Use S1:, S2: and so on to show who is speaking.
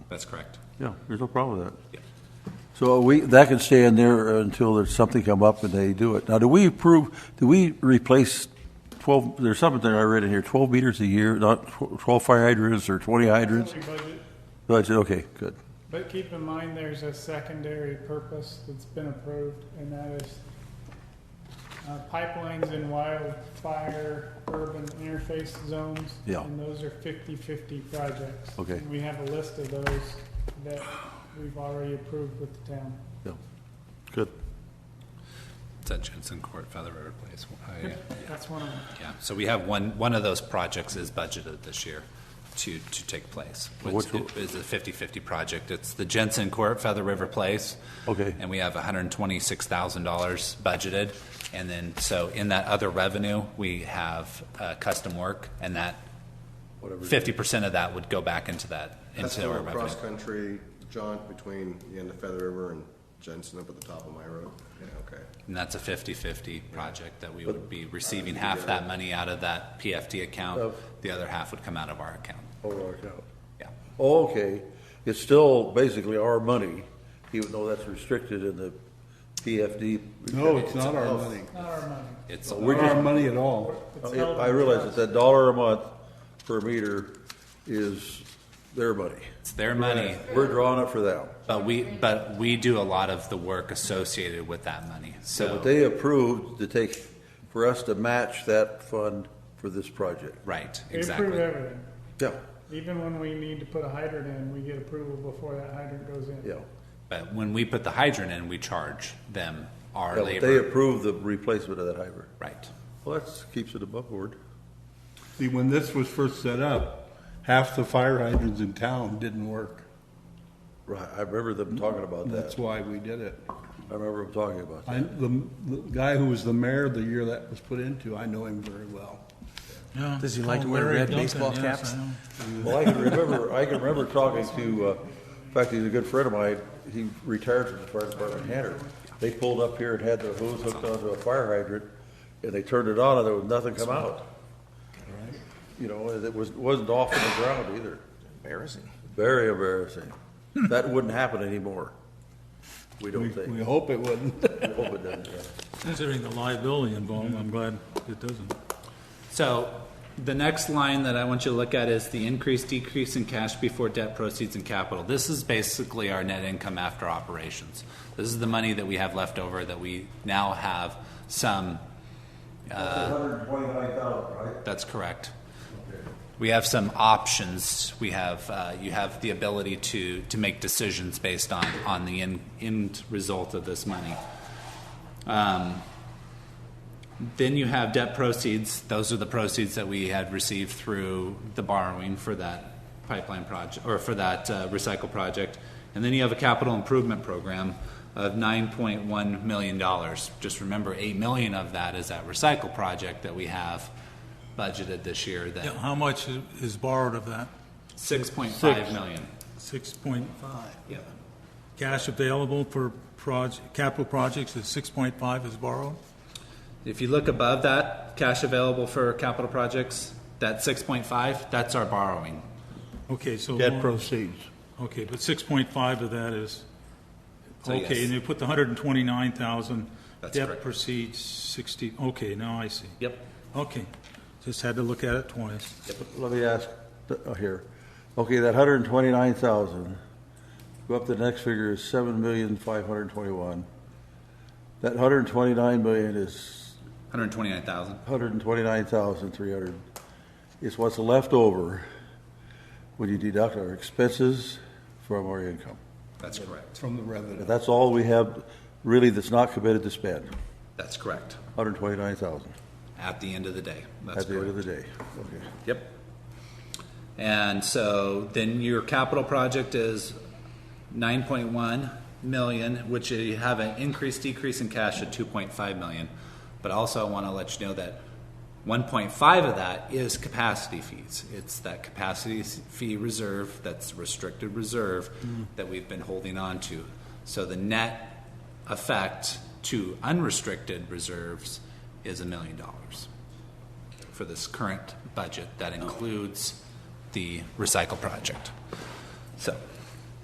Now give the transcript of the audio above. S1: That's correct.
S2: Yeah, there's no problem with that.
S1: Yeah.
S2: So we, that can stay in there until there's something come up and they do it. Now, do we approve, do we replace 12, there's something I read in here, 12 meters a year, not tw- 12 fire hydrants or 20 hydrants?
S3: Only budget,
S2: So I said, okay, good.
S3: But keep in mind, there's a secondary purpose that's been approved, and that is uh, pipelines in wildfire urban interface zones.
S2: Yeah.
S3: And those are 50/50 projects.
S2: Okay.
S3: And We have a list of those that we've already approved with the town.
S2: Yeah. Good.
S1: It's at Jensen Court, Feather River Place. I, uh,
S3: That's one of them.
S1: Yeah, so we have one, one of those projects is budgeted this year to, to take place.
S2: Which
S1: It's- It is a 50/50 project. It's the Jensen Court, Feather River Place.
S2: Okay.
S1: And we have $126,000 budgeted. And then, so in that other revenue, we have uh, custom work, and that, 50% of that would go back into that,
S4: That's
S1: into our
S4: a
S1: revenue.
S4: cross-country jaunt between the end of Feather River and Jensen up at the top of my road. Yeah, okay.
S1: And that's a 50/50 project that we would be receiving half that money out of that PFD account. The other half would come out of our account. Yeah.
S2: Okay, it's still basically our money, even though that's restricted in the PFD.
S5: No, it's not our money.
S3: Not our money.
S1: It's,
S2: We're
S5: Not
S2: just
S5: our money at all.
S3: It's held
S2: Oh, I
S3: in
S2: realize that
S3: trust.
S2: that dollar a month per meter is their money.
S1: it's their money,
S2: We're drawing it for them.
S1: but we, but we do a lot of the work associated with that money,
S2: But
S1: so,
S2: they approved to take, for us to match that fund for this project.
S1: right,
S3: They approve
S1: exactly.
S3: everything.
S2: Yeah,
S3: Even when we need to put a hydrant in, we get approval before that hydrant goes in.
S2: yeah.
S1: But when we put the hydrant in, we charge them our
S2: Yeah, but They
S1: labor.
S2: approved the replacement of that hydrant.
S1: Right,
S2: Well, that keeps it above board.
S5: See, when this was first set up, half the fire hydrants in town didn't work.
S2: Right, I remember them talking about that.
S5: That's why we did it.
S2: I remember them talking about
S5: I,
S2: that.
S5: the, the guy who was the mayor the year that was put into, I know him very well.
S6: Does he
S7: Oh,
S6: like to wear red baseball caps?
S2: Well, I can remember, I can remember talking to, uh, in fact, he's a good friend of mine, he retired from the fire department in Hanford. They pulled up here and had their hose hooked onto a fire hydrant, and they turned it on, and there was nothing come out. You know, and it was, wasn't off on the ground either.
S6: Embarrassing.
S2: Very embarrassing. That wouldn't happen anymore. We
S5: We,
S2: don't think.
S5: we hope it wouldn't.
S2: We hope it doesn't. yeah.
S7: Considering the liability involved, I'm glad it doesn't.
S1: so the next line that I want you to look at is the increase, decrease in cash before debt proceeds and capital. This is basically our net income after operations. This is the money that we have left over that we now have some That's correct. We have some options. We have, uh, you have the ability to, to make decisions based on, on the end, end result of this money. Um, Then you have debt proceeds. Those are the proceeds that we had received through the borrowing for that pipeline project, or for that uh, recycle project. And then you have a capital improvement program of nine point one million dollars. Just remember, eight million of that is that recycle project that we have budgeted this year,
S7: Yeah,
S1: that
S7: how much is- is borrowed of that?
S1: six point five million.
S7: Six point five.
S1: Yeah.
S7: Cash available for project, capital projects is six point five is borrowed?
S1: If you look above that, cash available for capital projects, that six point five, that's our borrowing.
S7: Okay, so.
S5: Debt
S7: more-
S5: proceeds.
S7: Okay, but six point five of that is,
S1: So
S7: okay,
S1: yes.
S7: and you put the hundred and twenty-nine thousand.
S1: That's
S7: Debt
S1: correct.
S7: proceeds sixty, okay, now I see.
S1: Yep.
S7: Okay, just had to look at it twice.
S2: Let me ask, uh, here, okay, that hundred and twenty-nine thousand, go up to the next figure is seven million, five hundred and twenty-one. That hundred and twenty-nine million is
S1: Hundred twenty-nine thousand.
S2: hundred and twenty-nine thousand, three hundred. It's what's left over when you deduct our expenses from our income.
S1: That's correct.
S5: From the revenue.
S2: And that's all we have, really, that's not committed to spend,
S1: That's correct.
S2: hundred and twenty-nine thousand
S1: At the end of the day. That's
S2: at the end of
S1: correct.
S2: the day. Okay.
S1: Yep. And so then your capital project is nine point one million, which you have an increase, decrease in cash of two point five million. But also I want to let you know that one point five of that is capacity fees. It's that capacity s- fee reserve, that's restricted reserve that we've been holding on to. So the net effect to unrestricted reserves is a million dollars for this current budget that includes the recycle project. So